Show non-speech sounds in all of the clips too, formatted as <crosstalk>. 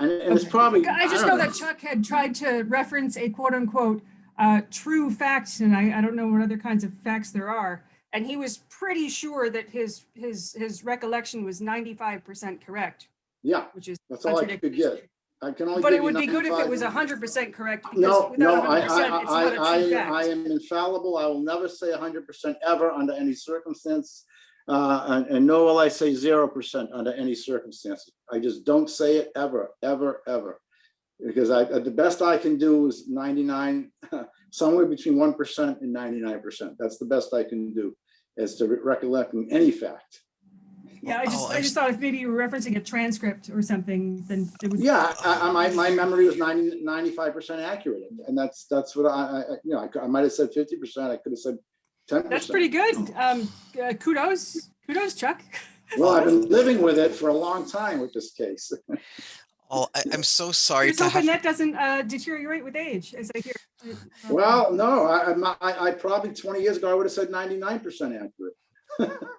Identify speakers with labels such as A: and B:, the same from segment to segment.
A: And it's probably.
B: I just
A: don't
B: know that Chuck had tried to reference a quote unquote uh, true fact, and I, I don't know what other kinds of facts there are. And he was pretty sure that his, his, his recollection was ninety-five percent correct,
A: Yeah,
B: which is.
A: that's all I could
B: contradictory.
A: get. I can only.
B: But
A: give
B: it
A: you
B: would be good if it
A: 95.
B: was hundred percent correct because
A: No, no,
B: without
A: I, I,
B: hundred percent, it's not
A: I,
B: a true
A: I, I
B: fact.
A: am infallible. I will never say hundred percent ever under any circumstance. Uh, and, and nor will I say zero percent under any circumstances. I just don't say it ever, ever, ever. Because I, the best I can do is ninety-nine, <laughs> somewhere between one percent and ninety-nine percent. That's the best I can do as to recollecting any fact.
B: Yeah, I
C: Oh,
B: just, I
C: I
B: just thought if maybe you were referencing a transcript or something, then it would.
A: Yeah, I,
B: Um,
A: I, my, my memory was 95 percent accurate, and that's, that's what I, I, I- you know, I, cou- I might have said fifty percent, I could have said ten percent.
B: That's pretty good. Um, uh, kudos, kudos Chuck.
A: Well, I've been living with it for a long time with this case.
B: Mm-hmm.
C: Oh, I, I'm so sorry
B: Just
C: to have.
B: hoping that doesn't uh, deteriorate with age, as I hear. Uh,
A: Well, no, I, I'm not- I, I probably twenty years ago, I would have said ninety-nine percent accurate.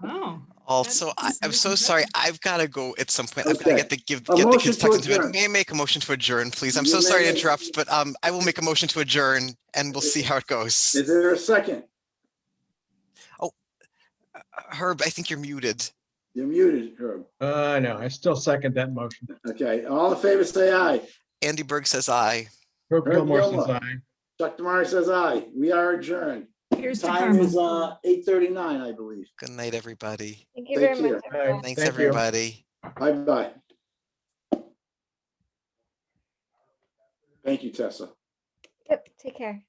B: Oh.
C: Also, I,
B: is
C: I'm
B: really
C: so sorry. I've got to go at some point. I've got
A: Okay.
C: to get the give
A: A
C: get the
A: motion
C: kids
A: to
C: tucked into
A: adjourn.
C: bed. May I make a motion to adjourn, please? I'm
A: You
C: so
A: may
C: sorry to
A: make-
C: interrupt, but um, I will make a motion to adjourn, and we'll see how it goes.
A: Is there a second?
C: Herb, I think you're muted.
A: You're muted, Herb.
D: Uh, no, I still second that motion.
A: Okay, all in favor, say aye.
C: Andy Berg says aye.
D: Herb
A: Herb
D: Gilmore says
A: Gilmore.
D: aye.
A: Chuck Damari says aye. We are adjourned.
B: Here's to
A: Time is,
B: karma.
A: uh, eight thirty-nine, I believe.
C: Good night, everybody.
E: Thank you
A: Thank
E: very much.
A: you.
E: everyone.
D: Bye.
C: Thanks,
D: Thank you.
C: everybody.
A: Bye-bye. Thank you, Tessa.
E: Yep, take care.